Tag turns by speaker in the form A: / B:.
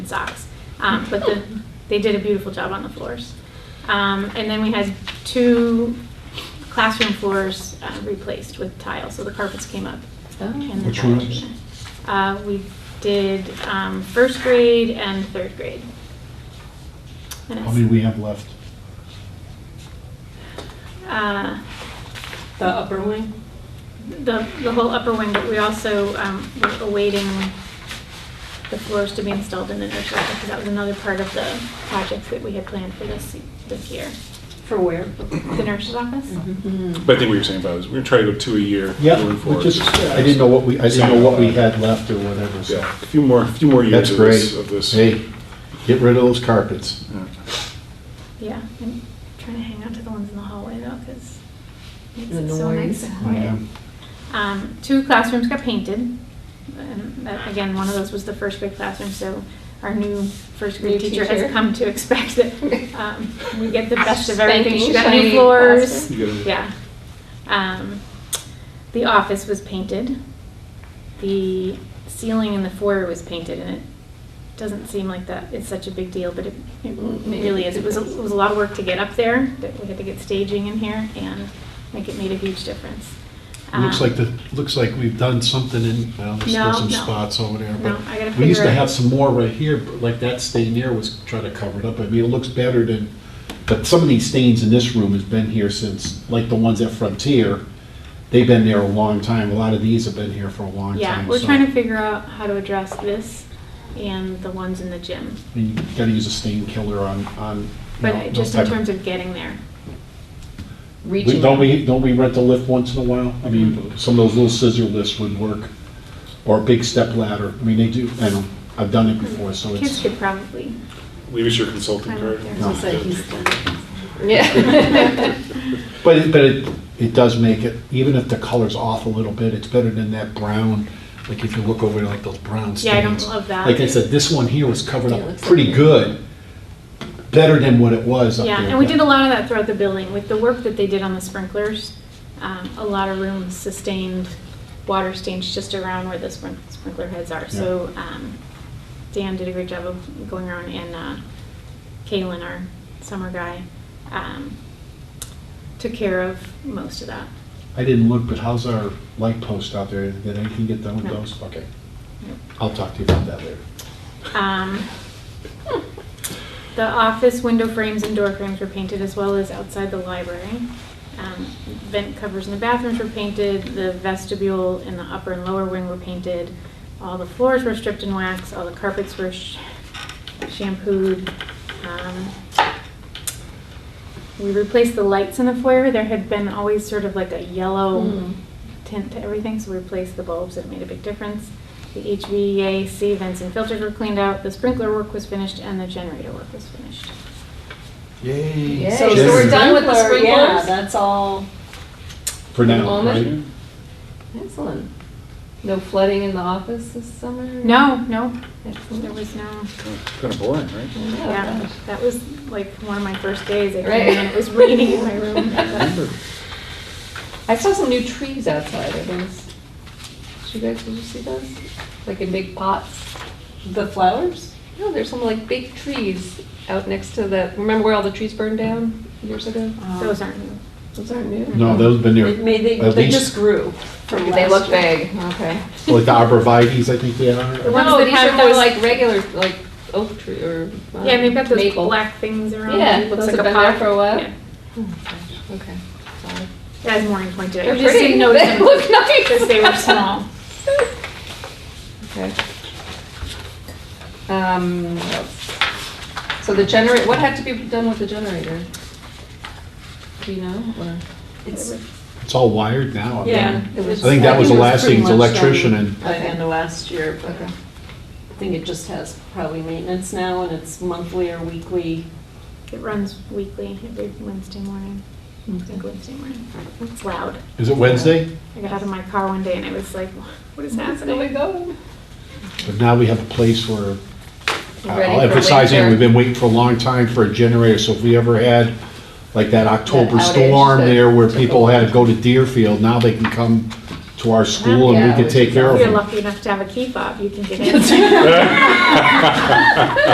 A: socks. Um, but the, they did a beautiful job on the floors. Um, and then we had two classroom floors uh, replaced with tile, so the carpets came up.
B: Oh.
A: and the
C: Which
A: tile
C: ones?
A: came down. Uh, we did, um, first grade and third grade. And
C: How
A: it's-
C: many we have left?
A: Uh,
B: The upper wing?
A: the, the whole upper wing, but we also, um, were awaiting the floors to be installed in the nursery, because that was another part of the project that we had planned for this, this year.
B: For where?
A: The nurse's office?
B: Mm-hmm.
C: Mm-hmm.
D: But I think what you're saying about is we're gonna try to go two a year
C: Yeah,
D: going
C: we
D: forward.
C: just, I didn't know what we, I didn't know what we had left or whatever, so.
D: Yeah, a few more, a few more years
C: That's
D: of this.
C: great.
D: Of this.
C: Hey, get rid of those carpets.
D: Yeah.
A: Yeah, I'm trying to hang on to the ones in the hallway though, because it's
B: The
A: so nice
B: noise.
A: and
C: I
A: quiet.
C: am.
A: Um, two classrooms got painted, and that, again, one of those was the first grade classroom, so our new first grade
B: New
A: teacher
B: teacher.
A: has come to expect that, um, we get the best of everything. She
B: Spanking,
A: got new
B: shiny
A: floors.
B: classroom.
D: You gotta-
A: Yeah. Um, the office was painted. The ceiling in the foyer was painted, and it doesn't seem like that it's such a big deal, but it, it really is. It was, a, it was a lot of work to get up there. That we had to get staging in here and make it made a huge difference.
C: Looks
A: Um,
C: like the, looks like we've done something in, well, there's
A: No,
C: still some
A: no.
C: spots over there,
A: No,
C: but.
A: I gotta
C: We used to
A: figure it-
C: have some more right here, but like that stain there was trying to cover it up. I mean, it looks better than, but some of these stains in this room has been here since, like the ones at Frontier, they've been there a long time. A lot of these have been here for a long time.
A: Yeah, we're
C: so-
A: trying to figure out how to address this and the ones in the gym.
C: I mean, You gotta use a stain killer on, on. you
A: But
C: know,
A: it-
C: those
A: just in
C: type
A: terms of getting there.
C: We- Don't we, don't we rent a lift once in a while? I mean, some of those little scissor lifts would work, or a big step ladder. I mean, they do, I know, I've done it before, so
A: Kids
C: it's,
A: could probably
D: Leave us your consulting
A: climb up
D: card.
A: there.
C: No.
B: Yeah.
C: but it, but it, it does make it, even if the color's off a little bit, it's better than that brown, like if you look over like those brown stains.
A: Yeah, I don't love that.
C: Like I said, this one here was covered
B: Yeah, it
C: up
B: looks
C: pretty
B: like-
C: good, better than what it was up there.
A: Yeah, and we
C: but-
A: did a lot of that throughout the building. With the work that they did on the sprinklers, um, a lot of rooms sustained water stains just around where the sprink- sprinkler heads are. So um, Dan did a great job of going around and uh, Kalen, our summer guy, um, took care of most of that.
C: I didn't look, but how's our light post out there? Did anything get done with
A: No.
C: those? Okay. I'll talk to you about that later.
A: Um, The office window frames and door frames were painted as well as outside the library. Um, Vent covers in the bathrooms were painted, the vestibule in the upper and lower wing were painted. All the floors were stripped and waxed, all the carpets were sh- shampooed. Um, We replaced the lights in the foyer. There had been always sort of like a yellow
B: Mm.
A: tint to everything, so we replaced the bulbs, it made a big difference. The HVAC vents and filters were cleaned out, the sprinkler work was finished, and the generator work was finished.
C: Yay.
B: Yay.
E: So, so we're done with the
B: Sprinkler, Yeah,
E: sprinklers?
B: that's all.
C: For now,
B: Moment.
C: right?
B: Excellent. No flooding in the office this summer?
A: No, no, there Oh,
B: Excellent.
A: was no,
D: Kind of boring, right?
A: yeah, that was like one of my first days, I
B: Right.
A: came in, and it was raining in my room.
B: I saw some new trees outside, are those, did you guys, did you see those? Like in big pots? The flowers? No, there's some like big trees out next to the, remember where all the trees burned down years ago?
E: Um,
A: Those aren't new.
B: Those aren't new.
C: No, those have been
E: It
C: there,
E: may- They,
C: At
E: they
C: least-
E: just grew from
B: They look
E: last year.
B: big, okay.
C: like the arborvitae's, I think they had on
A: The
C: it.
A: ones
B: No,
A: that
B: these
A: have
B: are more
A: those-
B: like regular, like oak tree or um,
A: Yeah, and they've got those
B: maple.
A: black things around.
B: Yeah,
A: it looks
B: those
A: like
B: have been there
A: pot.
B: for a while.
A: Yeah.
B: Okay. Sorry.
A: As Maureen pointed
B: They're
A: out, you just
B: pretty.
A: didn't notice
B: They
A: them
B: look nice.
A: because they were small.
B: Okay. Um, what else? So the generator, what had to be done with the generator? Do you know, or?
E: It's-
C: It's all wired now. I mean,
E: Yeah.
B: It was-
C: I think that was the
E: it
C: last
E: pretty
C: thing, the
E: much
C: electrician
E: done
C: and-
E: By the end of last year, but
B: Okay.
E: I think it just has probably maintenance now and it's monthly or weekly.
A: It runs weekly, every Wednesday morning, I think Wednesday morning. It's loud.
C: Is it Wednesday?
A: I got out of my car one day and I was like, what is
B: There we
A: happening?
B: go.
C: But now we have a place where,
B: Ready
C: I'll
B: for
C: emphasize it,
B: winter.
C: we've been waiting for a long time for a generator, so if we ever had like that October
B: outage
C: storm
B: that
C: there where
B: took a
C: people
B: while.
C: had to go to Deerfield, now they can come to our school and we could take care
A: If
C: of
A: you're
C: them.
A: lucky enough to have a key fob, you can get in.